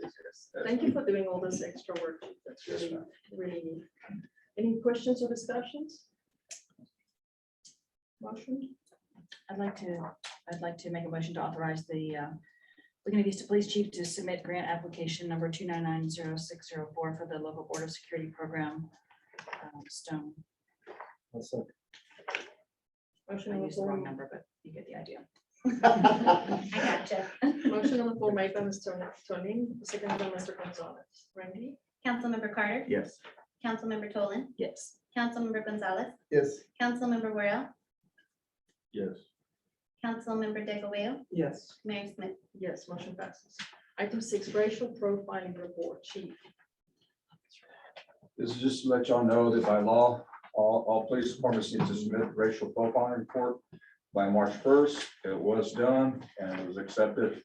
Yes, that's- Thank you for doing all this extra work. That's Yes, really, ma'am. really neat. Any questions or discussions? Motion? I'd like to, I'd like to make a motion to authorize the uh, Laguna Vista Police Chief to submit grant application number two nine nine zero six zero four for the local Board of Security Program. um, Stone, Motion I on the used the wrong floor. number, but you get the idea. I gotcha. Motion on the floor made by Mr. Tonin, second by Mr. Gonzalez. Randy? Councilmember Carter, Yes. Councilmember Tolan, Yes, Councilmember Gonzalez, Yes. Councilmember Worel, Yes. Councilmember Digglebale, Yes. Mayor Smith. Yes, motion passes. Item six, racial profiling report, chief. This is just to let y'all know that by law, all, all police departments need to submit racial profiling report by March first. It was done and it was accepted.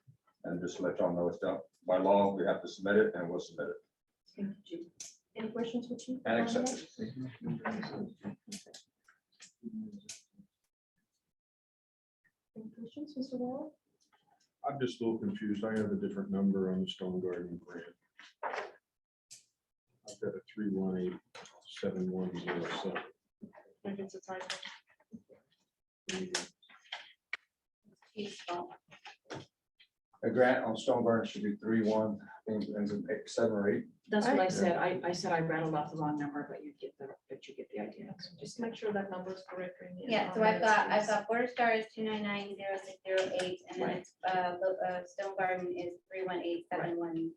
And just to let y'all know it's done. By law, we have to submit it and we'll submit it Thank you, chief. Any questions for chief? and accept it. Any questions, Mr. Wall? I'm just a little confused. I have a different number on the Stone Garden grant. I've got a three one eight seven one zero seven. Maybe it's a typo. A grant on Stoneburn should be three, one, and eight, seven or eight. that's what I Alright. said. I, I said I rattled off the wrong number, but you get the, but you get the idea. Just make sure that number is correct. Randy, and Yeah, so I'll I've got, I've ask got Border Star is two nine nine zero six zero eight, and then Right. it's, uh, Lo- uh, Stone Garden is three one eight seven one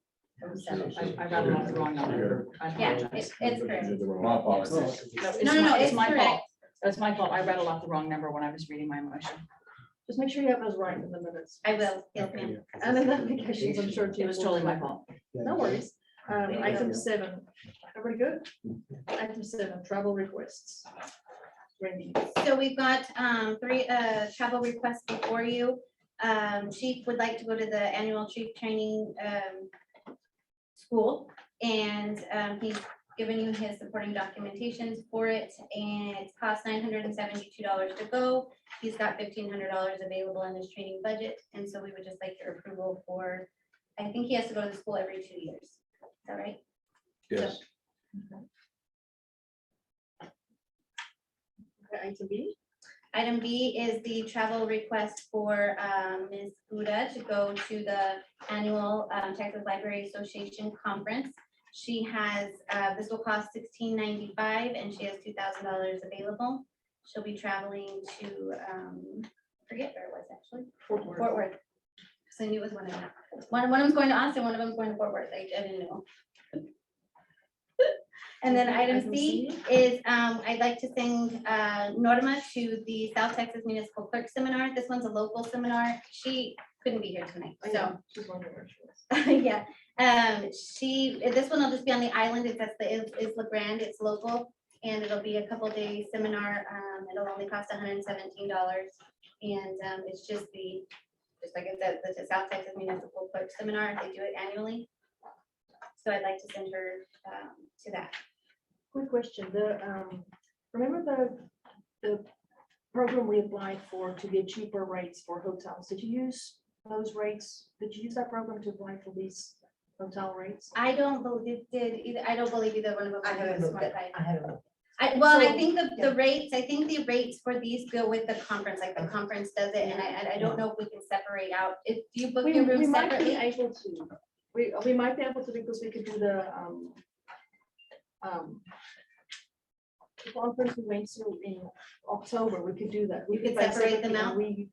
oh seven. I I rattled off the wrong number. I Yeah, apologize. it's, it's correct. My apologies. it's No, no, no, my- it's my fault. correct. That's my fault. I rattled off the wrong number when I was reading my motion. you. Just make sure you have those right in the minutes. I will, yes, ma'am. And then the applications, I'm sure. It Jim was will totally my correct. fault. No worries. Um, Thank item you. seven, everybody good? Item seven, travel requests. Randy, So we've got um, three uh, travel requests before you. Um, Chief would like to go to the annual chief training um, school. And um, he's given you his supporting documentations for it and it costs nine hundred and seventy-two dollars to go. He's got fifteen hundred dollars available in his training budget. And so we would just like your approval for, I think he has to go to the school every two years. Is that right? Yes. Okay, item B, Item B is the travel request for um, Ms. Buda to go to the annual um, Texas Library Association Conference. She has, uh, this will cost $16.95, and she has two thousand dollars available. She'll be traveling to, um, I forget where it was actually, Fort Worth. Fort Worth. So I knew it was one of them. One, one of them's going to Austin, one of them's going to Fort Worth. I I didn't know. And then Okay, item C is, um, I'd like to send, uh, Norma to the South Texas Municipal Clerk Seminar. This one's a local seminar. She couldn't be here tonight, I so. know, she's wondering where she was. Yeah, um, she, this one will just be on the island, it's at the, Is- Isla Grande, it's local, and it'll be a couple day seminar, um, it'll only cost hundred and seventeen dollars. And, um, it's just the, just like I said, the South Texas Municipal Clerk Seminar, they do it annually. So I'd like to send her, um, to that. Quick question, the, um, remember the, the program we applied for to get cheaper rates for hotels? Did you use those rates? Did you use that program to apply for these hotel rates? I don't believe, did, either, I don't believe either one of them. I haven't was looked at- qualified. I haven't looked. I, well, I So- think the, yeah. the rates, I think the rates for these go with the conference, like the conference does it, and I, and I don't know if we can separate out, if do you book We your we room might be separately. able to, we, we might be able to because we could do the, um, um, the conference we went to in October, we could do that. We You could find separate them separately and out? We,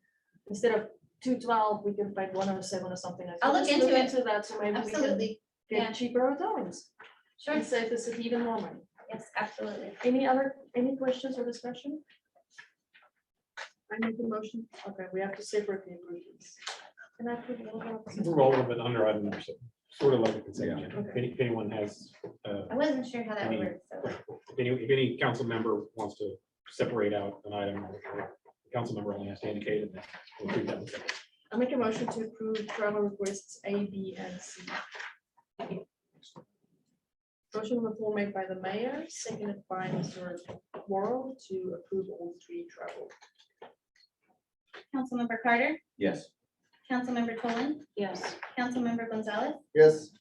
instead of two twelve, we can find one oh seven or something like. that. I'll look Let's into it. Into that, so maybe we can Absolutely, yeah. get cheaper hotel rooms. sure, and save the city even more money. yes, absolutely. Any other, any questions or discussion? I make the motion. Okay, we have to separate the agreements. Can I put it all up? We're all of it under item number seven, sort of like a consent Yeah. agenda. If any- if anyone has, uh, I wasn't sure how that Any- works, so, if any, if any council member wants to separate out an item, or the council member only has to indicate it. then we'll treat that as separate. I make a motion to approve travel requests A, B, and C. Motion on the floor made by the mayor, seconded by Mr. Morrow to approve all three travel. Councilmember Carter, Yes. Councilmember Tolan, Yes. Councilmember Gonzalez, Yes.